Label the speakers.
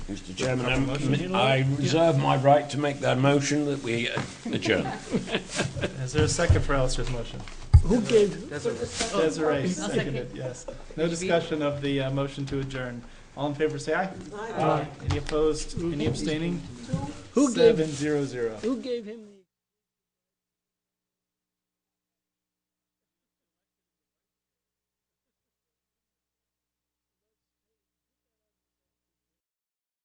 Speaker 1: Mr. Chairman, I'm- I reserve my right to make that motion that we adjourn.
Speaker 2: Is there a second for Alistair's motion?
Speaker 3: Who gave,
Speaker 2: Desiree seconded, yes. No discussion of the uh, motion to adjourn. All in favor, say aye. Aye. Any opposed, any abstaining?
Speaker 3: who gave,
Speaker 2: Seven zero zero.
Speaker 3: who gave him the?